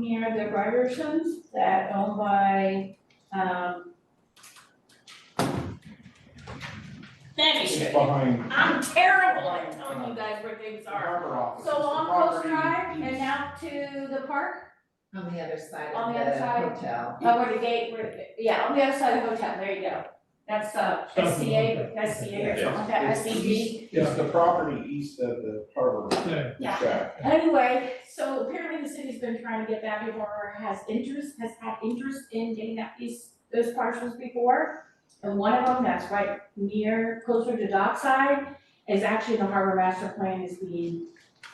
here, the Bryersons, that owned by, um. Thank It's you. behind I'm terrible at telling you guys where things the are. harbor office, So it's the on Coast property Drive and east. out to the park, On the other side On of the other side. the hotel. uh, where the gate, where, yeah, on the other side of the hotel, there you go. That's, uh, Something like SCA, that. SCA or something like that, It's SCB. east- It's the property east of the harbor. Yeah. Yeah. Drive. Anyway, so apparently the city's been trying to get that before, has interest, has had interest in getting that piece, those parcels before. And one of them that's right near, closer to dockside, is actually the harbor master plan is the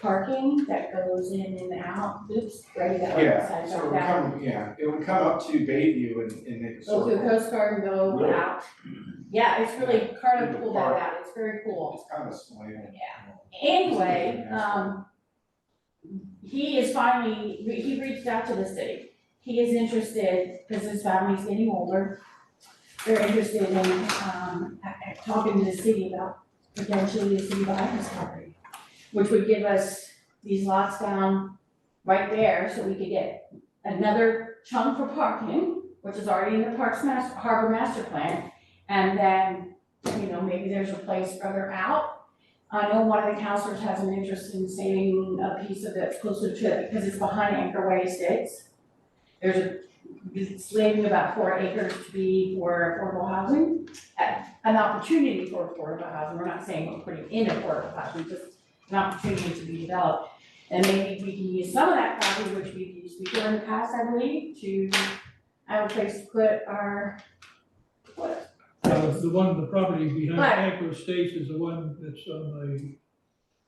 parking that goes in and out, oops, right, that one Yeah, side, so it like would that. come, yeah, it would come up to Bayview and, and make a Go through circle. Coast Guard and go Really? out. Yeah, it's really, Carter pulled that Park. out, it's very cool. It's kind of slanted. Anyway, um, he is finally, he reached out to the city. He is interested, because his family's getting older. They're interested in, um, a- a- talking to the city about potentially the city buying this property, which would give us these lots down right there, so we could get another chunk for parking, which is already in the Parks Master, Harbor Master Plan. And then, you know, maybe there's a place further out I know one of the counselors has an interest in saving a piece of it closer to, because it's behind Anchor Way Estates. There's a, it's leaving about four acres to be for affordable housing, uh, an opportunity for affordable housing, we're not saying we're putting in affordable housing, just an opportunity to be developed. And maybe we can use some of that property, which we've used before in the past, I believe, to have a place to put our, what, Uh, the one, the property behind Right. Anchor Estates is the one that's on the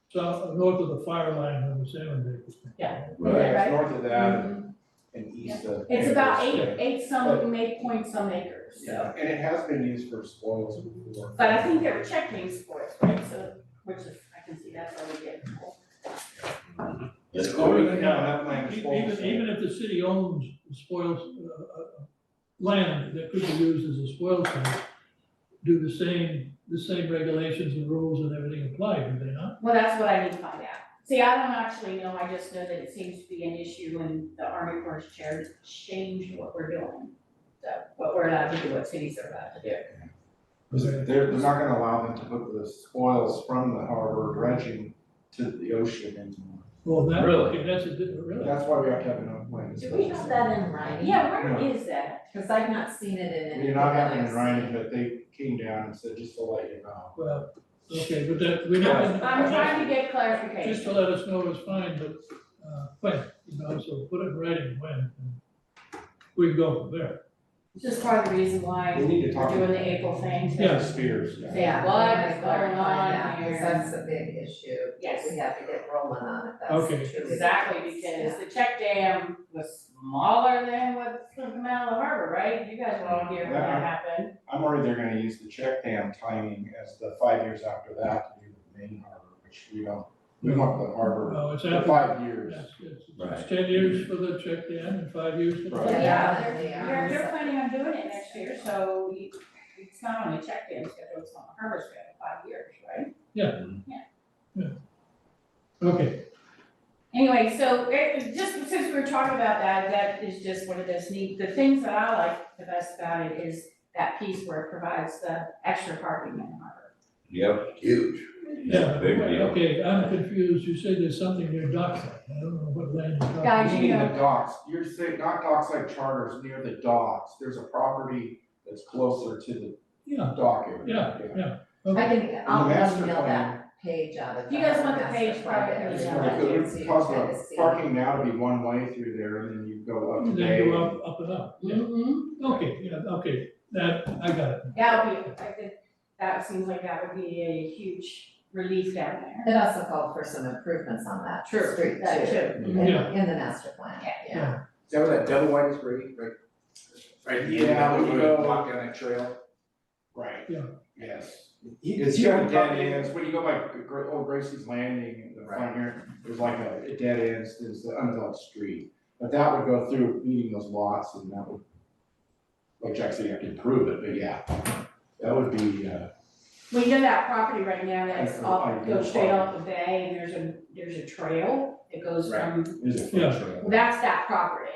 south, north of the fire line on the salmon Bay. Yeah. Yeah, Right. Mm-hmm. it's north of that and east of. it's about eight, Amherst, eight some, eight point some acres, so. yeah. And it has been used for spoils before. But I think they're checking sports, right, so, which is, I can see that's already getting old. That's Oh, cool. yeah, that land is Even, spoils. even if the city owns spoils, uh, uh, land that could be used as a spoil site, do the same, the same regulations and rules and everything apply, do they not? Well, that's what I need to find out. See, I don't actually know, I just know that it seems to be an issue when the Army Corps of Chair changed what we're doing. So, what we're allowed to do, what cities are allowed to do. They're, they're not gonna allow them to put the spoils from the harbor dredging to the ocean anymore. Well, that, Really? okay, that's a, different- really, That's why we have to have enough land. Do we have that in writing? Yeah, where is that? Cause I've not seen it in any. You're not having it running, but they came down and said, just to let you know. well, okay, but that, we're not. I'm trying to get Just clarification. to let us know it's fine, but, uh, when, you know, so put it right in when, and we can go from there. It's just part of the reason why We need to we're talk. doing the April thing. so- Yeah. Yeah, Spears, yeah. Yeah. What is we gotta going find on out, 'cause here? that's a big issue. Yes. We have to get rolling on it, that's Okay. true. Exactly, because the check dam was smaller than what's coming out of the harbor, right? You guys were all here when that Yeah. happened. I'm worried they're gonna use the check dam timing as the five years after that to do the main harbor, which we don't, we want the harbor No, Oh, it's for after, five years. it's, it's, it's Right. ten years for the check dam and five years for. Right. Yeah, Yeah, they are. they're, they're planning on doing it next year, so you- it's not on the check dam schedule, it's on the harbor schedule, five years, right? Okay, Anyway, so it, just since we were talking about that, that is just one of those neat, the things that I like the best about it is that piece where it provides the extra parking in the harbor. Yep. Huge. yeah, Big right, deal. okay, I'm confused, you said there's something near dockside, I don't know what land you're talking about. Guys, you Meaning uh, know- the docks, you're saying, not docks like charters, near the docks, there's a property that's closer to the Yeah, dock area. Yeah, I okay, can, I'll master email plan- that page out of. You the guys want the master page plan prior to It's that we the- have, like, so you it can would cause kind of the see. parking now to be one way through there, and then you go up to then Bay. you go up, up and up, yeah, Mm-hmm. okay, yeah, okay, that, I got it. That would be, I think, that seems like that would be a huge relief down there. It also called for some improvements on that street True, too. that too. in- Yeah. In the master plan, Yeah. yeah. Is that where that double wide is, right, right? Right, Yeah, yeah, we we go- go uh, walk down that trail. Right. Yeah. Yes. He- It's he got would dead come in- ends, when you go by Gra- Old Gracie's Landing, in the front here, there's like a, a dead ends, there's the undeveloped street. But that would go through meeting those lots and that would, like Jack said, you have to improve it, but yeah, that would be, uh, We know that property right now that's That's off, right, goes yeah. straight off the bay and there's a, there's a trail that goes from, is a Yeah. fun trail. that's that property.